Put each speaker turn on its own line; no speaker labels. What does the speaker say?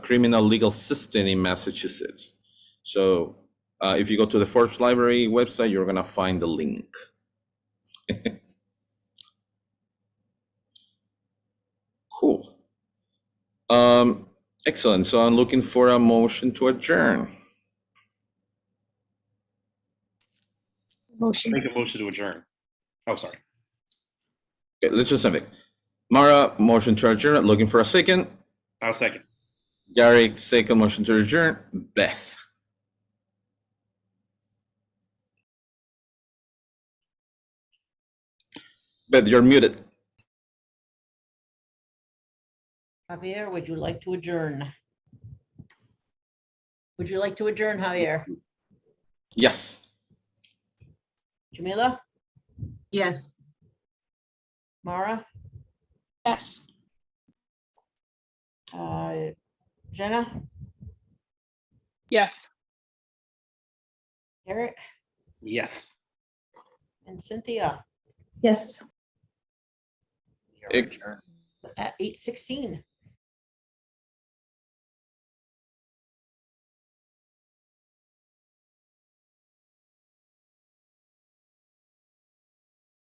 criminal legal system in Massachusetts. So uh, if you go to the Forbes Library website, you're gonna find the link. Cool. Um, excellent. So I'm looking for a motion to adjourn.
Motion.
Make a motion to adjourn. Oh, sorry.
Okay, let's just have it. Mara, motion to adjourn, looking for a second.
I'll second.
Gary, second motion to adjourn. Beth. Beth, you're muted.
Javier, would you like to adjourn? Would you like to adjourn, Javier?
Yes.
Jamila?
Yes.
Mara?
Yes.
Uh, Jenna?
Yes.
Eric?
Yes.
And Cynthia?
Yes.
You're
Ec-
adjourned At eight sixteen.